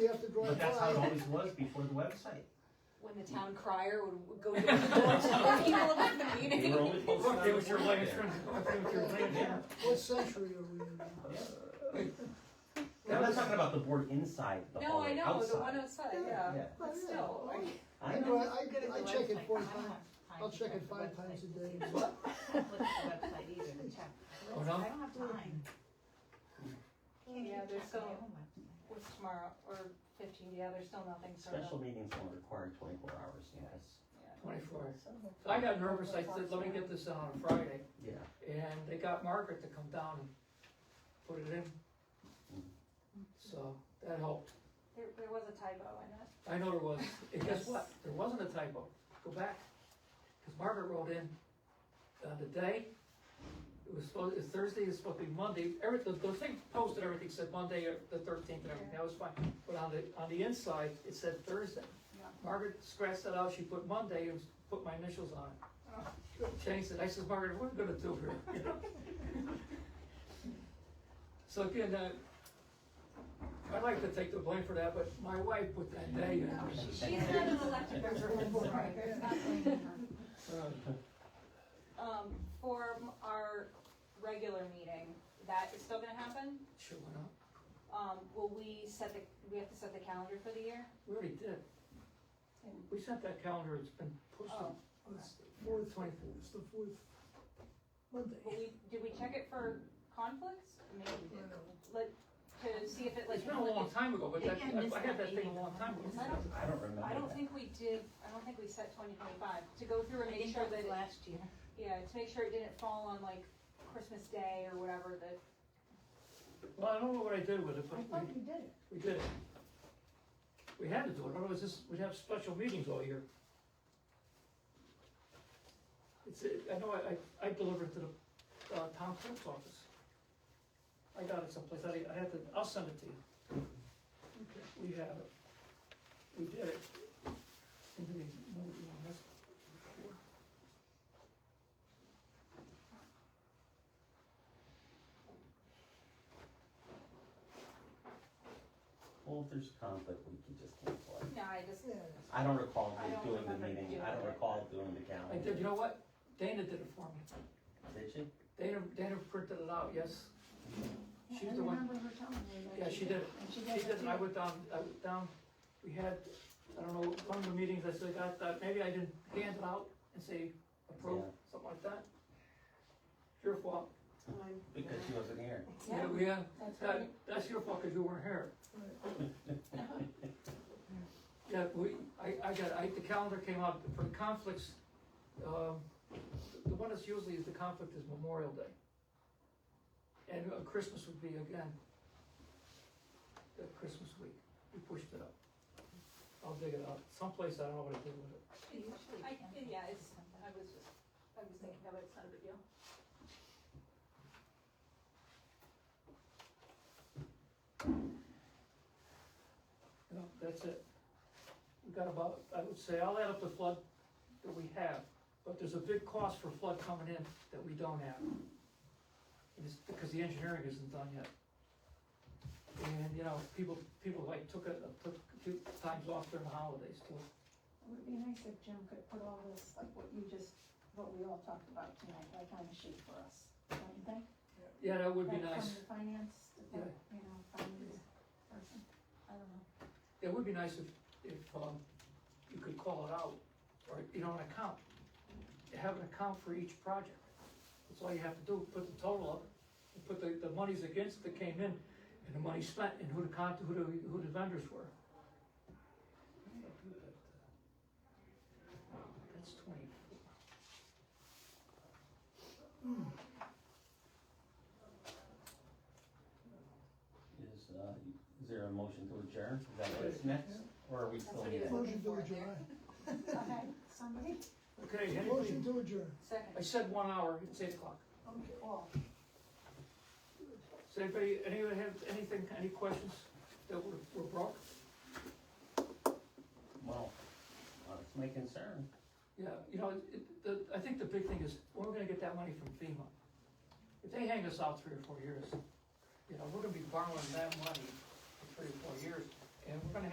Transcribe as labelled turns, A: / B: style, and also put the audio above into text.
A: you have to drive
B: But that's how it
A: by.
B: always was before the website.
C: When the town crier would would go to the door to tell people about the
B: They
C: meeting.
B: were only posted on
D: Look,
B: the
D: there was your
B: website.
D: latest, look, there was your latest.
B: Yeah.
A: What century are we in now?
B: Now, I'm not talking about the board inside the
C: No, I
B: hallway,
C: know, the one
B: outside.
C: outside,
A: Yeah.
C: yeah,
B: Yeah.
C: but still, like,
B: I
A: I
B: know.
A: drive, I, I check it four times, I'll check it five times a day.
E: Look at the website either to check.
D: Oh, no?
E: I don't have time.
C: Yeah, there's
E: Check
C: so-
E: my own website.
C: what's tomorrow, or fifteen, yeah, there's still nothing sort
B: Special
C: of.
B: meetings only require twenty-four hours, yes,
D: Twenty-four. So I got nervous, I said, let me get this in on a Friday,
B: yeah.
D: and they got Margaret to come down and put it in. So, that helped.
C: There, there was a typo in it.
D: I know there was, and guess what? There wasn't a typo. Go back. Cause Margaret wrote in, uh, the day, it was supposed, it's Thursday, it's supposed to be Monday. Every, the, the thing posted, everything said Monday, uh, the thirteenth and everything, that was fine. But on the, on the inside, it said Thursday.
C: Yeah.
D: Margaret scratched that out, she put Monday and put my initials on it. Changed it. I said, Margaret, what are we gonna do here? So again, uh, I'd like to take the blame for that, but my wife put that day in.
C: She's not an elected person, sorry, there's not blaming her.
D: Uh,
C: Um, for m- our regular meeting, that is still gonna happen?
D: Sure, why not?
C: Um, will we set the, we have to set the calendar for the year?
D: We already did. We sent that calendar, it's been pushed
C: Oh,
D: to
A: It's the fourth,
D: twenty-four.
A: it's the fourth Monday.
C: Will we, did we check it for conflicts? Maybe we did. Let, to see if it like.
D: It's been a long time ago, but that,
E: Maybe I missed
D: I had that
E: that
D: thing a
E: meeting.
D: long time ago.
C: I don't-
B: I don't remember
C: I don't
B: that.
C: think we did, I don't think we set twenty twenty-five, to go through
E: I
C: and make
E: think
C: sure
E: that
C: that,
E: was
C: it-
E: last year.
C: yeah, to make sure it didn't fall on like Christmas Day or whatever, that,
D: Well, I don't know what I did with it,
F: I
D: but
F: thought
D: we,
F: you did it.
D: we did it. We had to do it, otherwise this, we'd have special meetings all year. It's, I know I, I, I delivered to the, uh, town clerk's office. I got it someplace, I, I had to, I'll send it to you. We have it. We did it. And then we- no, we don't have it.
B: Well, if there's conflict, we can just cancel it.
C: no, I just,
A: Yeah,
B: I don't recall
C: I don't
B: doing the
C: remember
B: meeting,
C: doing
B: I don't
C: it.
B: recall doing the
D: I
B: calendar.
D: did, you know what? Dana did it for me.
B: Did she?
D: Dana, Dana printed it out, yes. She's
F: I
D: the one-
F: remember her telling me that.
D: Yeah, she did. it.
F: And she
D: She
F: did
D: did,
F: it
D: and I
F: too.
D: went down, I went down, we had, I don't know, one of the meetings, I said, I thought, maybe I didn't hand it out and say approve,
B: Yeah.
D: something like that. Your fault.
B: Because she wasn't here.
C: yeah,
D: we, uh,
C: that's right.
D: that, that's your fault, cause you weren't here.
A: right.
D: Yeah, we, I, I got, I, the calendar came out for the conflicts, um, the one that's usually is the conflict is Memorial Day. And uh, Christmas would be again, the Christmas week, we pushed it up. I'll dig it out, someplace, I don't know what I did with it.
E: Usually
C: I,
E: can.
C: yeah, it's, I was just, I was thinking of it, it's not a big deal.
D: No, that's it. We got about, I would say, I'll add up the flood that we have, but there's a big cost for flood coming in that we don't have. And It's because the engineering isn't done yet. And, you know, people, people like took it, took a few times off during the holidays too.
F: It would be nice if Jim could put all this, like what you just, what we all talked about tonight, like on a sheet for us, don't you think?
D: Yeah, that would be
F: Like
C: um,
D: nice.
F: From the finance, department, you know, finance person, I don't know.
D: It would be nice if, if, um, you could call it out, or, you know, an account. Have an account for each project. That's all you have to do, put the total up, and put the, the monies against that came in, and the money spent, and who the con, who the, who the vendors were. That's twenty.
B: Is, uh, is there a motion to adjourn? Is that what is next? Or are we still
C: what
B: in
C: he
B: that?
C: was-
A: Motion to adjourn.
F: Okay, somebody,
D: Okay,
A: Motion
D: anybody,
A: to adjourn.
C: Second.
D: I said one hour, it's eight o'clock.
F: okay, all.
D: Does anybody, anyone have anything, any questions that were, were brought?
B: Well, uh, it's my concern.
D: Yeah, you know, it, the, I think the big thing is, where we're gonna get that money from FEMA. If they hang us out three or four years, you know, we're gonna be borrowing that money for three or four years.